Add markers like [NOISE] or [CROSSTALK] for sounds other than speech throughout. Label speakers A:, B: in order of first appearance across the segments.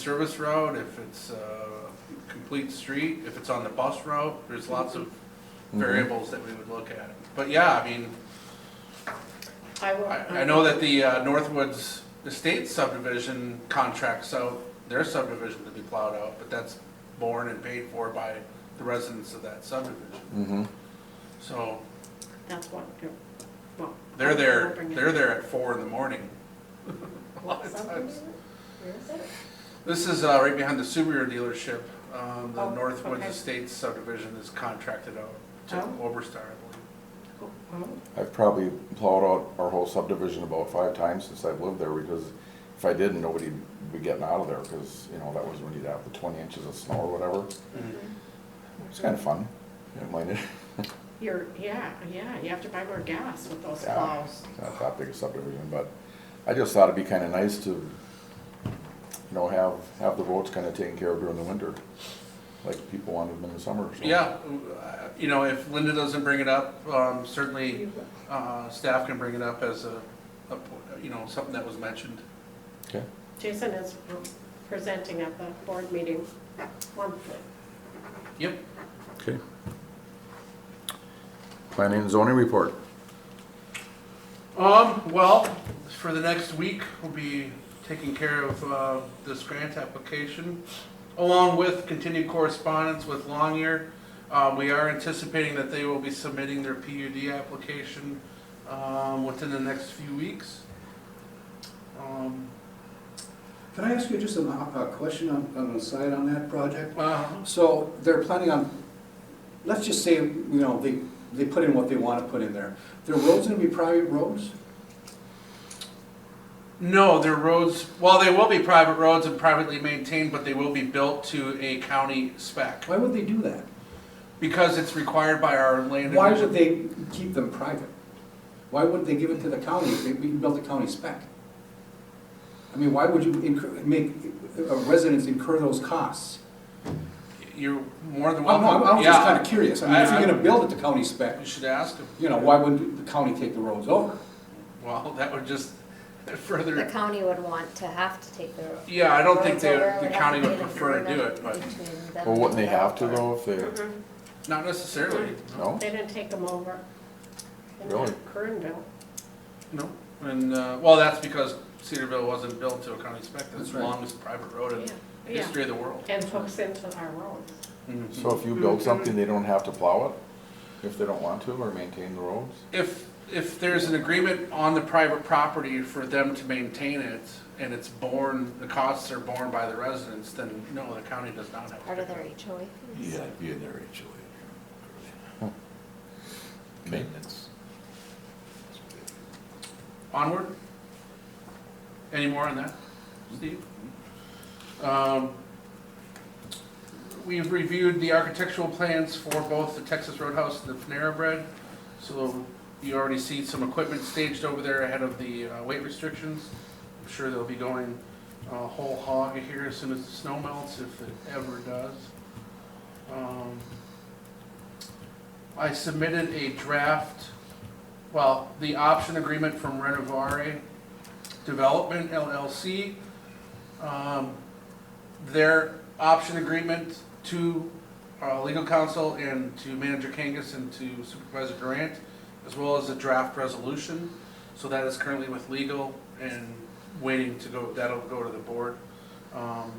A: service road, if it's a complete street, if it's on the bus route, there's lots of variables that we would look at. But yeah, I mean,
B: I will. Um,
A: I, I know that the uh, Northwoods Estate subdivision contracts out their subdivision to be plowed out, but that's borne and paid for by the residents of that subdivision.
C: Mhm.
A: So
B: That's what, you- well.
A: they're
B: I'll
A: there,
B: bring it.
A: they're there at four in the
B: [LAUGHS]
A: morning. A lot of times.
D: Where is it?
A: This is uh, right behind the Subaru dealership. Um, The
B: Oh,
A: Northwoods
B: okay.
A: Estates subdivision is contracted out to
B: Oh.
A: Oberstar, I
B: Oh, oh,
C: I've probably plowed out our whole subdivision about five times since I've lived there, because if I didn't, nobody'd be getting out of there, because, you know, that was when you'd have the twenty inches of snow or whatever.
A: believe.
C: It's kind of fun, you don't mind it, [LAUGHS]
B: You're, yeah, yeah, you have to buy more gas with those
C: Yeah.
B: plows.
C: it's not that big a subdivision, but I just thought it'd be kind of nice to, you know, have, have the roads kind of taken care of during the winter, like people wanted them in the summer, so.
A: Yeah, uh, you know, if Linda doesn't bring it up, um, certainly uh, staff can bring it up as a, a po- you know, something that was mentioned.
C: Okay,
B: Jason is um, presenting at the board meeting monthly.
A: Yep.
C: okay. Planning and zoning report.
A: Um, well, for the next week, we'll be taking care of, uh, this grant application, along with continued correspondence with Longyear. Uh, we are anticipating that they will be submitting their PUD application, um, within the next few weeks. Um,
E: Can I ask you just a, a question on, on the side on that project?
A: uh,
E: So they're planning on, let's just say, you know, they, they put in what they want to put in there. Their roads gonna be private roads?
A: No, their roads, well, they will be private roads and privately maintained, but they will be built to a county spec.
E: Why would they do that?
A: Because it's required by our land.
E: Why
A: division.
E: would they keep them private? Why wouldn't they give it to the county if they, we can build a county spec? I mean, why would you incur, make uh, residents incur those costs?
A: You're more than
E: I'm, I'm
A: welcome.
E: I'm just
A: Yeah.
E: kinda curious. I mean, if
A: I-
E: you're
A: I-
E: gonna build it to county spec,
A: You should ask them.
E: you know, why wouldn't the county take the roads over?
A: Well, that would just
D: The
A: further,
D: county would want to have to take their.
A: yeah, I don't think
D: roads
A: they,
D: over, it
A: the
D: have
A: county
D: to
A: would
D: be an
A: prefer to do
D: agreement
A: it, but
D: between them
C: Well, wouldn't they
D: and the
C: have to
D: developer.
C: though, if they,
A: not necessarily.
C: no?
B: They didn't take them over. in
C: Really?
B: Kernville.
A: No. And, uh, well, that's because Cedarville wasn't built to a county spec. That's
E: That's
A: the
E: right.
A: longest private road in
B: yeah,
A: the
B: yeah.
A: history of the world.
B: And hooks into our roads.
A: Mhm.
C: So if you build something, they don't have to plow it, if they don't want to, or maintain the roads?
A: If, if there's an agreement on the private property for them to maintain it, and it's borne, the costs are borne by the residents, then no, the county does not have. to
D: Part of
A: pick
D: their
A: it
D: HOA. fees.
F: Yeah, it'd be in their HOA. Maintenance.
A: up. Onward? Any more on that, Steve? Um, We've reviewed the architectural plans for both the Texas Roadhouse and the Panera Bread. So you already see some equipment staged over there ahead of the uh, weight restrictions. I'm sure they'll be going uh, whole hog here as soon as the snow melts, if it ever does. Um, I submitted a draft, well, the option agreement from Renovare Development LLC. Um, Their option agreement to uh, legal counsel and to Manager Kangas and to Supervisor Durant, as well as a draft resolution. So that is currently with legal and waiting to go, that'll go to the board. Um,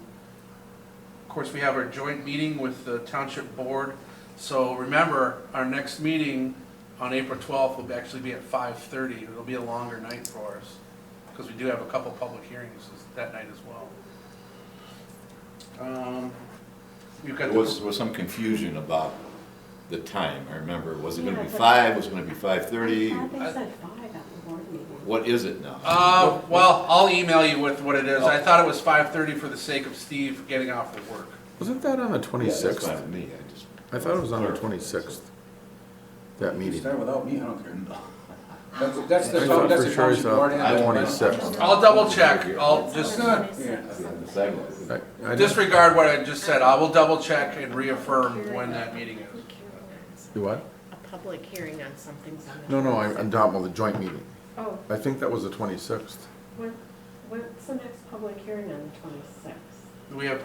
A: Of course, we have our joint meeting with the township board. So remember, our next meeting on April 12th will be- actually be at 5:30. It'll be a longer night for us because we do have a couple public hearings that night as well. Um, You've got
F: There
A: the.
F: was, was some confusion about the time, I remember. Was it gonna be
B: Yeah, but-
F: five, was it gonna be five thirty?
B: I think
A: I-
B: they said five at the board meeting.
F: What is it now?
A: Uh, well, I'll email you with what it is. I thought it was five thirty for the sake of Steve getting off of work.
C: Wasn't that on the
F: Yeah, that's
C: twenty-sixth?
F: fine with me, I just.
C: I thought it was on the twenty-sixth, that
E: You
C: meeting.
E: Start without me, I don't care.
F: [LAUGHS]
E: That's, that's
C: I
E: the,
C: thought
E: that's
C: for
E: the
C: sure it's
E: township board.
C: on
E: and the-
C: 26th.
A: I'll double check. I'll Oh, just uh,
F: The second.
C: I- I just-
A: disregard what I just said. I will double check and reaffirm when that meeting is.
C: You what?
B: A public hearing on something's on the.
C: No, no, I- I'm talking about the joint meeting.
B: Oh,
C: I think that was the twenty-sixth.
B: when, when's the next public hearing on the twenty-sixth?
A: we have